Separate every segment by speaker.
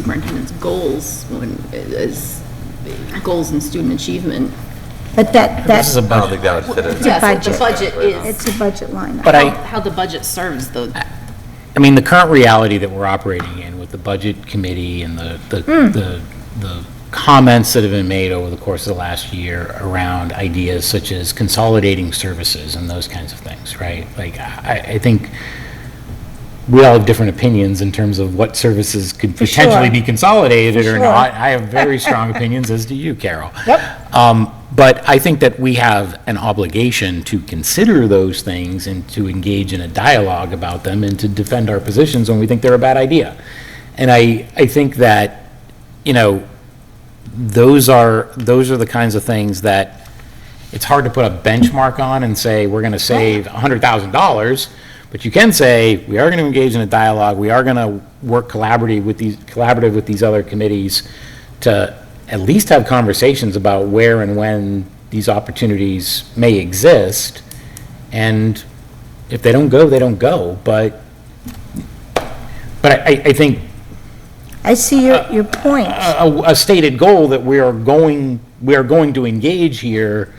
Speaker 1: superintendent's goals when, is goals and student achievement.
Speaker 2: But that,
Speaker 3: This is a
Speaker 2: that,
Speaker 3: budget.
Speaker 4: I don't think that would fit in.
Speaker 1: Yes, what the
Speaker 2: budget.
Speaker 1: budget is,
Speaker 2: it's a budget line.
Speaker 3: But
Speaker 1: how
Speaker 3: I-
Speaker 1: how the budget serves the,
Speaker 3: I mean, the current reality that we're operating in with the budget committee and the, the, the the comments that have been made over the course of the last year around ideas such as consolidating services and those kinds of things, right? Like, I, I think we all have different opinions in terms of what services could
Speaker 2: sure.
Speaker 3: potentially be consolidated
Speaker 2: For
Speaker 3: or
Speaker 2: sure.
Speaker 3: not. I have very strong opinions, as do you, Carol. Yep. Um, but I think that we have an obligation to consider those things and to engage in a dialogue about them and to defend our positions when we think they're a bad idea. And I, I think that, you know, those are, those are the kinds of things that it's hard to put a benchmark on and say, we're going to save $100,000, but you can say, we are going to engage in a dialogue, we are going to work collaborative with these, collaborative with these other committees to at least have conversations about where and when these opportunities may exist. And if they don't go, they don't go, but, but I, I- I think
Speaker 2: I see your, your point.
Speaker 3: a, a stated goal that we are going, we are going to engage here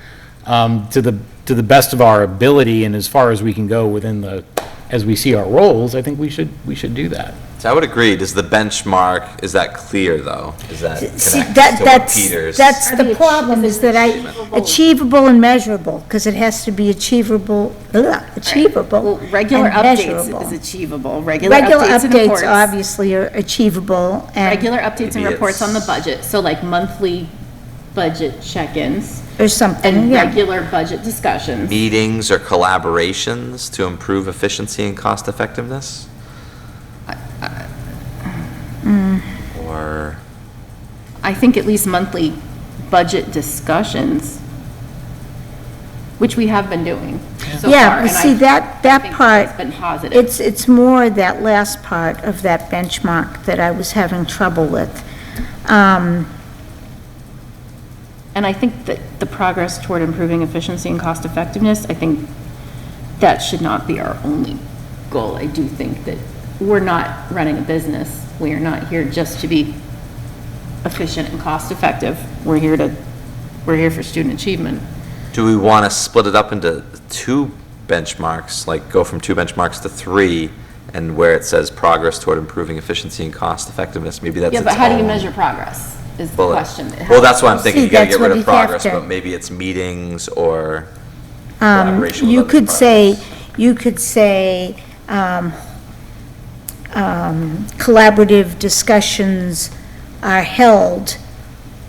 Speaker 3: um, to the, to the best of our ability and as far as we can go within the, as we see our roles, I think we should, we should do that.
Speaker 4: So I would agree, does the benchmark, is that clear, though? Is that
Speaker 2: See,
Speaker 4: connected
Speaker 2: that,
Speaker 4: to what
Speaker 2: that's,
Speaker 4: Peter's?
Speaker 2: that's the problem, is that I, achievable and measurable, because it has to be achievable, ugh,
Speaker 1: well,
Speaker 2: achievable
Speaker 1: regular
Speaker 2: and measurable.
Speaker 1: updates is achievable, regular
Speaker 2: Regular
Speaker 1: updates and reports.
Speaker 2: updates obviously are achievable and,
Speaker 1: Regular updates and
Speaker 4: Maybe
Speaker 1: reports on the
Speaker 4: it's-
Speaker 1: budget, so like monthly budget check-ins
Speaker 2: or something,
Speaker 1: and
Speaker 2: Oh, yeah.
Speaker 1: regular budget discussions.
Speaker 4: Meetings or collaborations to improve efficiency and cost effectiveness?
Speaker 2: mm.
Speaker 4: Or,
Speaker 1: I think at least monthly budget discussions, which we have been doing so far.
Speaker 2: Yeah, but
Speaker 1: and I-
Speaker 2: see, that,
Speaker 1: I
Speaker 2: that
Speaker 1: think
Speaker 2: part,
Speaker 1: It's been positive.
Speaker 2: it's, it's more that last part of that benchmark that I was having trouble with. Um,
Speaker 1: And I think that the progress toward improving efficiency and cost effectiveness, I think that should not be our only goal. I do think that we're not running a business. We are not here just to be efficient and cost effective. We're here to, we're here for student achievement.
Speaker 4: do we want to split it up into two benchmarks, like go from two benchmarks to three, and where it says progress toward improving efficiency and cost effectiveness, maybe that's
Speaker 1: Yeah,
Speaker 4: its
Speaker 1: but how do you
Speaker 4: own
Speaker 1: measure progress is the
Speaker 4: bullet.
Speaker 1: question.
Speaker 4: Well, that's why I'm thinking,
Speaker 2: See,
Speaker 4: you gotta
Speaker 2: that's
Speaker 4: get rid
Speaker 2: what
Speaker 4: of
Speaker 2: we have
Speaker 4: progress,
Speaker 2: to-
Speaker 4: but maybe it's meetings or
Speaker 2: um,
Speaker 4: collaboration with
Speaker 2: You
Speaker 4: other
Speaker 2: could say,
Speaker 4: departments.
Speaker 2: you could say, um, um, collaborative discussions are held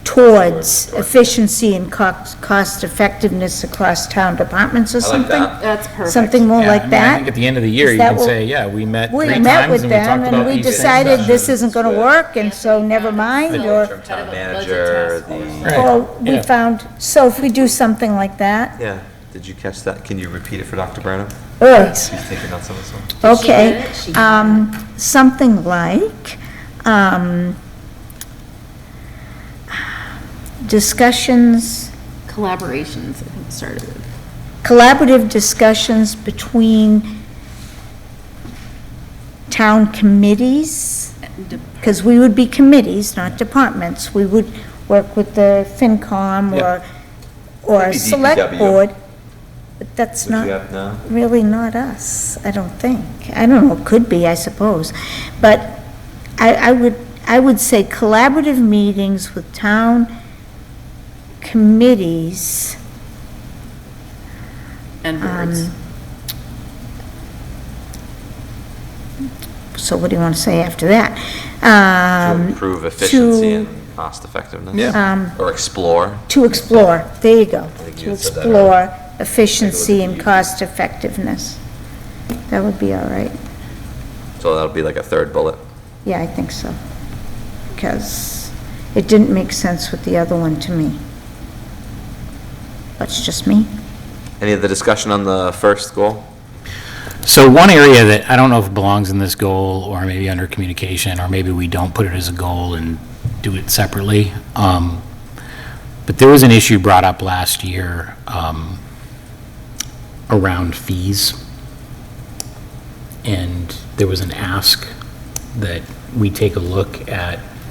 Speaker 2: towards efficiency and cost effectiveness across town departments or
Speaker 4: I like
Speaker 2: something?
Speaker 4: that.
Speaker 1: That's perfect.
Speaker 2: Something more
Speaker 3: Yeah, I
Speaker 2: like
Speaker 3: mean, I
Speaker 2: that?
Speaker 3: think at the end of the year,
Speaker 2: Is
Speaker 3: you
Speaker 2: that
Speaker 3: can
Speaker 2: what-
Speaker 3: say, yeah, we met three
Speaker 2: We
Speaker 3: times
Speaker 2: met
Speaker 3: and we
Speaker 2: with them
Speaker 3: talked
Speaker 2: and
Speaker 3: about
Speaker 2: we
Speaker 3: these things.
Speaker 2: decided this
Speaker 4: Discussions
Speaker 2: isn't going to
Speaker 4: with-
Speaker 2: work and so never mind or,
Speaker 4: Interim town manager, the,
Speaker 3: Right,
Speaker 2: or we
Speaker 3: yeah.
Speaker 2: found, so if we do something like that,
Speaker 4: yeah, did you catch that? Can you repeat it for Dr. Burnham?
Speaker 2: ugh,
Speaker 4: She's taking on some of this one.
Speaker 1: She did
Speaker 2: okay.
Speaker 1: it. She-
Speaker 2: Um, something like, um, discussions,
Speaker 1: Collaborations, I think, started with.
Speaker 2: collaborative discussions between town committees. because we would be committees, not departments. We would work with the FinCom or, or
Speaker 4: Maybe
Speaker 2: Select
Speaker 4: DPW.
Speaker 2: Board, but that's
Speaker 4: Would you
Speaker 2: not,
Speaker 4: have, no?
Speaker 2: really not us, I don't think. I don't know, could be, I suppose. But I, I would, I would say collaborative meetings with town committees
Speaker 1: And
Speaker 2: Um,
Speaker 1: boards.
Speaker 2: so what do you want to say after that? Um,
Speaker 4: To improve efficiency
Speaker 2: to-
Speaker 4: and cost effectiveness?
Speaker 3: Yeah.
Speaker 4: Or explore?
Speaker 2: To explore, there you go.
Speaker 4: think you
Speaker 2: To
Speaker 4: had said that earlier.
Speaker 2: explore efficiency and
Speaker 4: Take a look at the-
Speaker 2: cost effectiveness. That would be all right.
Speaker 4: So that'll be like a third bullet.
Speaker 2: Yeah, I think so. Because it didn't make sense with the other one to me. That's just me.
Speaker 4: Any other discussion on the first goal?
Speaker 3: So one area that I don't know if it belongs in this goal, or maybe under communication, or maybe we don't put it as a goal and do it separately, um, but there was an issue brought up last year um, around fees. And there was an ask that we take a look at